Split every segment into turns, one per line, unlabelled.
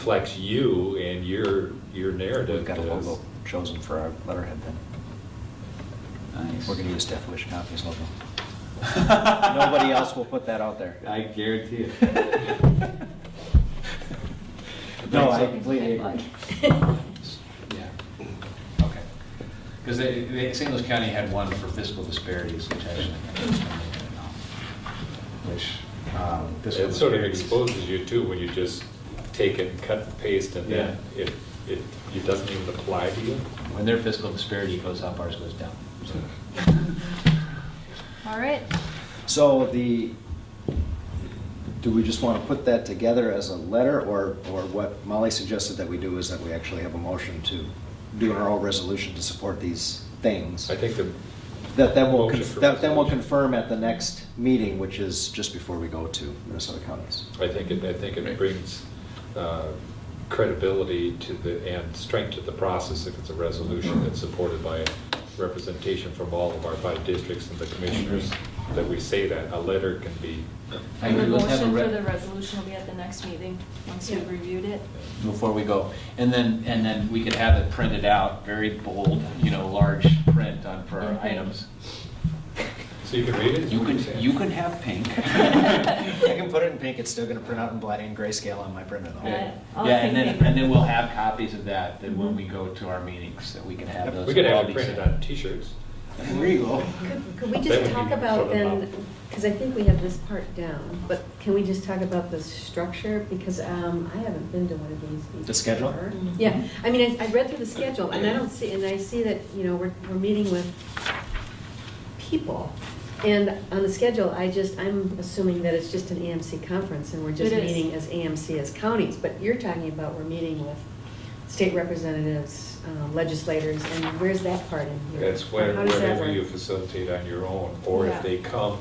reflects you and your, your narrative.
We've got a
to us.
logo chosen for our letterhead then.
Nice.
We're gonna use Death Wish Coffee's logo. Nobody else will put that out there.
I guarantee it.
No, I completely agree.
Yeah. Okay. Because they, they, St. Louis County had one for fiscal disparities, which actually, which, um, fiscal
It sort of
disparities-
exposes you too, when you just take and cut and paste and then it, it, it doesn't even apply to you.
When their fiscal disparity goes up, ours goes down. So,
All right.
So the, do we just want to put that together as a letter, or, or what Molly suggested that we do is that we actually have a motion to do our own resolution to support these things?
I think the,
That then we'll,
Motion
conf-
for
that then we'll
resolution.
confirm at the next meeting, which is just before we go to Minnesota counties.
I think it, I think it brings uh, credibility to the, and strength to the process if it's a resolution that's supported by representation from all of our five districts and the commissioners, that we say that. A letter can be,
I
The
agree, let's have a
motion for
re-
the resolution will be at the next meeting, once we've reviewed it.
Before we go, and then, and then we could have it printed out, very bold, you know, large print on for our
Mhm.
items.
so you can read it?
You can,
say it.
you can have pink.
I can put it in pink, it's still gonna print out in black and grayscale on my printer
Yeah.
though.
Yeah,
I'll
and then,
take pink. Mm-hmm.
and then we'll have copies of that, that when we go to our meetings, that we can have those.
We could have it
copies.
printed on t-shirts.
There you go.
Could could we
That
just
would
talk
be
about
sort of
then, because I think we have this part down, but can we just talk about the structure? Because um, I haven't been to one of these before.
The schedule?
Yeah, I mean, I I read through the schedule, and I don't see, and I see that, you know, we're, we're meeting with people. And on the schedule, I just, I'm assuming that it's just an AMC conference, and we're just
It is.
meeting as AMC as counties. But you're talking about we're meeting with state representatives, um, legislators, and where's that part in here?
That's where-
How does that
wherever
work?
you facilitate on your own, or if
Yeah.
they come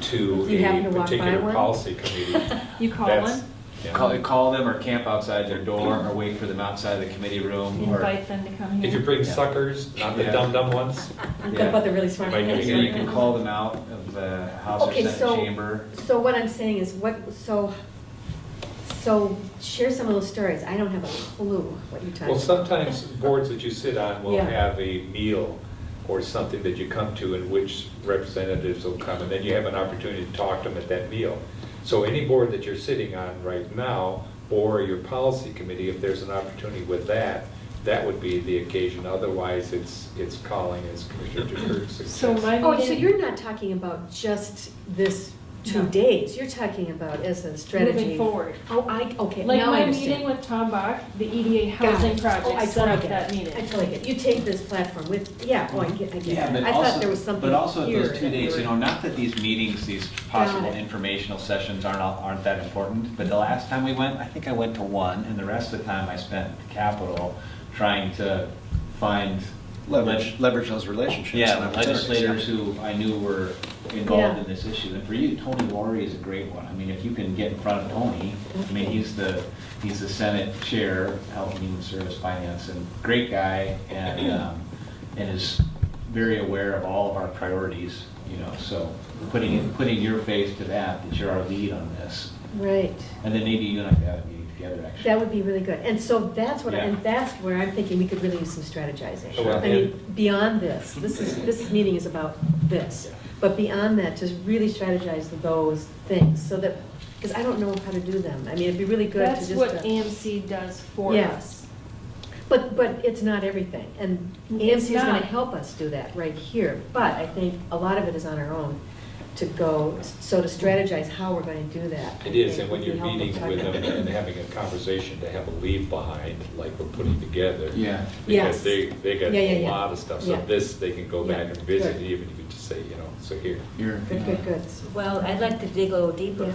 to
You happen
a
to walk by
particular
one?
policy committee.
You call
that's-
one?
yeah.
Call, call them or camp outside their door or wait for them outside the committee room or.
Invite them to come here.
If you bring suckers, not the
Yeah.
dum-dum ones,
I'm talking about the really smart
Like,
ones.
Yeah, you can call them out of the House or
Okay,
Senate
so-
chamber.
So what I'm saying is what, so, so share some of those stories. I don't have a clue what you're talking about.
well, sometimes boards that you sit on will
Yeah.
have a meal or something that you come to in which representatives will come, and then you have an opportunity to talk to them at that meal. So any board that you're sitting on right now, or your policy committee, if there's an opportunity with that, that would be the occasion. Otherwise, it's, it's calling, as Commissioner Dukert suggests.
So my
Oh, so
meeting-
you're not talking about just this two
No.
days, you're talking about as a strategy.
Moving forward.
Oh, I, okay,
Like
now I
my
understand.
meeting with Tom Bach, the EDA
Got
housing
it. Oh, I
project set
totally
up
get
that
it.
meeting.
I totally get it. You take this platform with, yeah, oh, I get, I get
Yeah,
it.
but
I
also-
thought there was something here.
But also at those two
that we
days, you
were-
know, not that these meetings, these possible
Got it.
informational sessions aren't, all- aren't that important, but the last time we went, I think I went to one, and the rest of the time I spent in Capitol trying to find.
Leverage, leverage those relationships. and
Yeah,
opportunities,
legislators
yeah.
who I knew were involved in this issue. And for you, Tony Wari is a great one. I mean, if you can get in front of Tony, I
Mm-hmm.
mean, he's the, he's the Senate Chair, Health and Human Service Finance, and great guy, and, um, and is very aware of all of our priorities, you know, so putting, putting your face to that, that you're our lead on this.
Right.
And then maybe you and I could have a meeting together, actually.
That would be really good. And so that's what, I-
Yeah.
and that's where I'm thinking we could really use some strategizing.
Sure.
I mean, beyond this, this is, this meeting is about this. But beyond that, just really strategize those things so that, because I don't know how to do them. I mean, it'd be really good to
That's
just.
what
uh,
AMC does for
Yeah.
us.
But, but it's not everything. And
It's
AMC is going
not.
to help us do that right here. But I think a lot of it is on our own to go, so to strategize how we're going to do that. I
It is,
think,
and when
would be
you're
helpful.
meeting with them and having a conversation to have a leave behind, like we're putting together.
Yeah.
Because
Yes.
they, they got
Yeah, yeah,
a
yeah.
lot of stuff, so
Yeah.
this, they can go
Yeah,
back and visit,
good.
even if you just say, you know, so here.
You're,
Good, good, good.
Well, I'd like to dig a little deeper.
Yeah.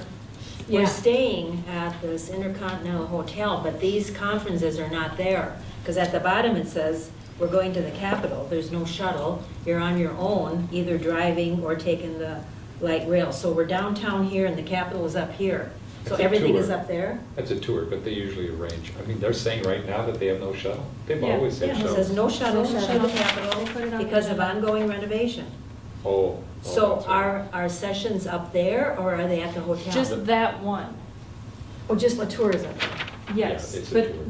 Yeah.
We're staying at this Intercontinental Hotel, but these conferences are not there. Because at the bottom it says, we're going to the Capitol, there's no shuttle, you're on your own, either driving or taking the light rail. So we're downtown here and the Capitol is up here. So
It's a
everything is
tour.
up there?
That's a tour, but they usually arrange, I mean, they're saying right now that they have no shuttle, they've
Yeah,
always
Yeah,
had
it says
shuttles.
no shuttle to
No
the
shuttle. Put it on
Capitol
the
because of
agenda.
ongoing renovation.
Oh, Oh.
So
that's right.
are, are sessions up there or are they at the hotel? Oh,
Just that one.
Or just the tourism.
Yeah,
Yes,
it's a
but
tour.